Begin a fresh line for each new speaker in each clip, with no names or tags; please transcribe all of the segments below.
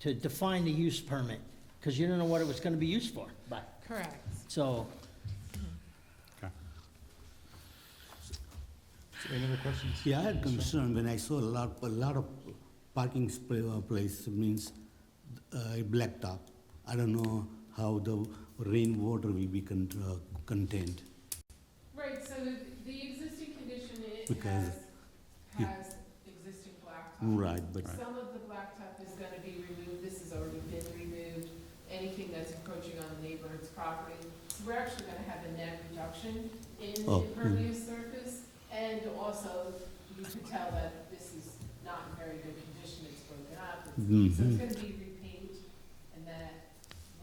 to define the use permit, because you don't know what it was gonna be used for. Right.
Correct.
So,
Okay.
Any other questions?
Yeah, I had concern when I saw a lot, a lot of parking sp- uh, place means uh, blacktop. I don't know how the rainwater will be con- uh, contained.
Right, so the, the existing condition, it
Because-
has, has existing blacktop.
Right, but
Some of the blacktop is gonna be removed, this has already been removed, anything that's encroaching on the neighborhood's property. So we're actually gonna have a net reduction in
Oh, mm.
impervious surface, and also, you can tell that this is not in very good condition, it's broken up, it's So it's
Mhm.
gonna be repaint, and that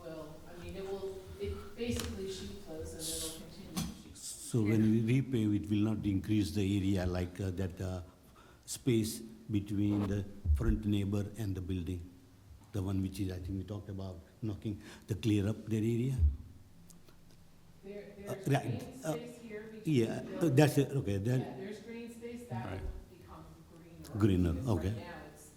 will, I mean, it will, it basically sheet flows and it'll continue. to sheet flow.
so when we repave, it will not increase the area like uh, that uh, space between the front neighbor and the building. The one which is, I think we talked about knocking, the clear up that area.
There,
Uh,
there's
right,
green
uh,
space here between
Yeah,
the
uh,
buildings.
that's it, okay,
Yeah,
that,
there's green space, that will
Right.
become greener.
Greener,
because
okay.
Right now, it's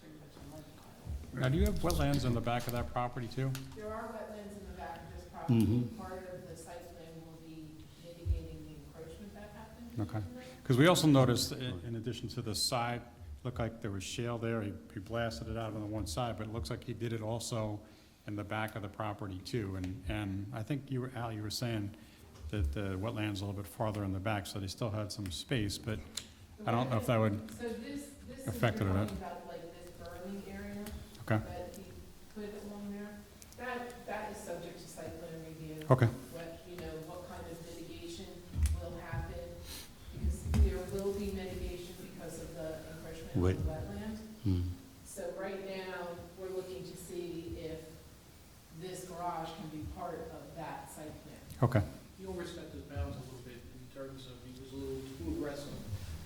pretty much a mud pile.
Now, do you have wetlands on the back of that property too?
There are wetlands in the back of this property,
Mhm.
part of the site plan will be mitigating the encroachment that happened.
Okay. Because we also noticed, i- in addition to the side, looked like there was shale there, he he blasted it out on the one side, but it looks like he did it also in the back of the property too, and, and I think you were, Al, you were saying that the wetland's a little bit farther in the back, so they still had some space, but I don't know if that would,
So this, this is
Affected or
talking
not.
about like this burning area
okay,
that he put along there. That, that is subject to site plan review.
okay,
What, you know, what kind of mitigation will happen? Because there will be mitigation because of the encroachment
Wait.
of the wetland.
hmm,
So right now, we're looking to see if this garage can be part of that site plan.
okay.
He overstepped his bounds a little bit in terms of he was a little too aggressive,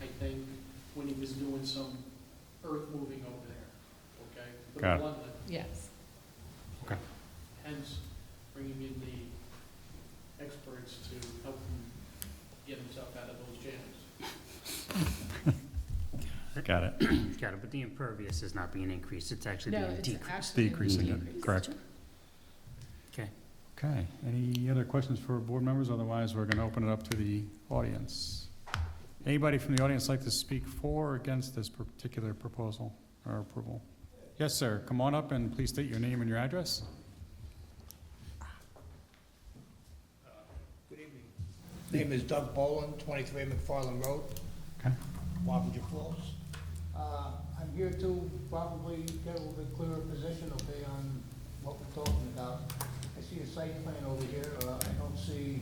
I think, when he was doing some earth moving over there, okay? with the
Got it.
bluntly,
Yes.
Hence, bringing in the experts to help him get himself out of those jams.
Got it.
Got it, but the impervious is not being increased, it's actually
No,
being
it's
decreased.
actually
Decreasing it,
decreased.
correct.
Okay.
Okay, any other questions for board members? Otherwise, we're gonna open it up to the audience. Anybody from the audience like to speak for or against this particular proposal or approval? Yes, sir, come on up and please state your name and your address.
Good evening. Name is Doug Boland, 23 McFarland Road,
Okay,
Wappinger Falls. Uh, I'm here to probably get a little bit clearer position, okay, on what we're talking about. I see a site plan over here, uh, I don't see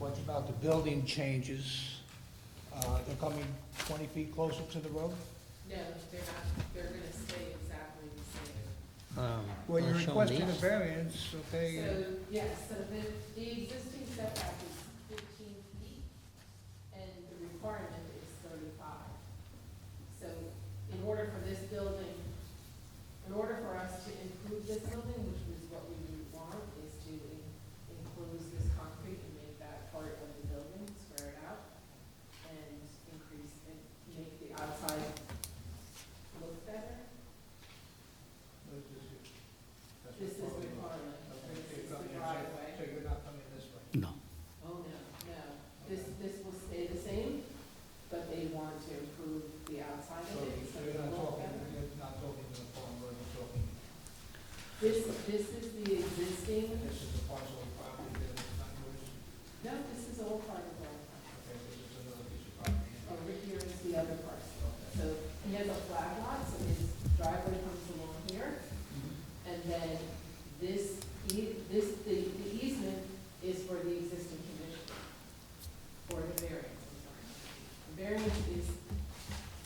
much about the building changes. Uh, They're coming 20 feet closer to the road?
No, they're not, they're gonna stay exactly the same.
um,
Well, you're
I'll show 'em
requesting a
these.
variance, okay?
So, yes, so the, the existing setback is fifteen feet, and the requirement is thirty-five. So in order for this building, in order for us to improve this building, which is what we would want, is to en- enclose this concrete and make that part of the building, square it out, and increase, and make the outside look better. This is the requirement, this is the driveway.
So you're not coming this way?
no.
Oh, no, no. This, this will stay the same, but they want to improve the outside
So
of it, so
you're not
it'll look
talking,
better.
you're not talking to the farm, road, you're talking
This, this is the existing,
This is the parcel of property that is not yours,
no, this is all part of the,
okay, this is another piece of property.
over here is the other parcel. So he has a flag lot, so his driveway comes along here,
Mm-hmm.
and then this, e- this, the the easement is for the existing condition, or the variance, I'm sorry. The variance is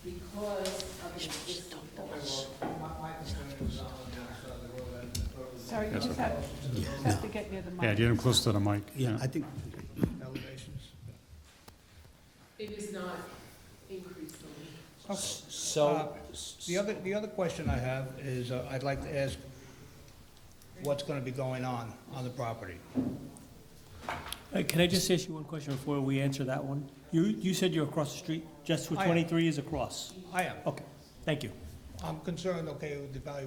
because of the existing
Okay, well, my, my concern is on the other side of the road, and the road is
Sorry, you
Yes,
just have, you just have to get near the mic.
yeah, get him close to the mic,
Yeah,
yeah.
I think,
elevations.
It is not increasing.
So. Uh, The other, the other question I have is, uh, I'd like to ask, what's gonna be going on, on the property?
Uh, Can I just ask you one question before we answer that one? You, you said you're across the street, just where
I am.
23 is across.
I am,
Okay, thank you.
I'm concerned, okay, with the valuation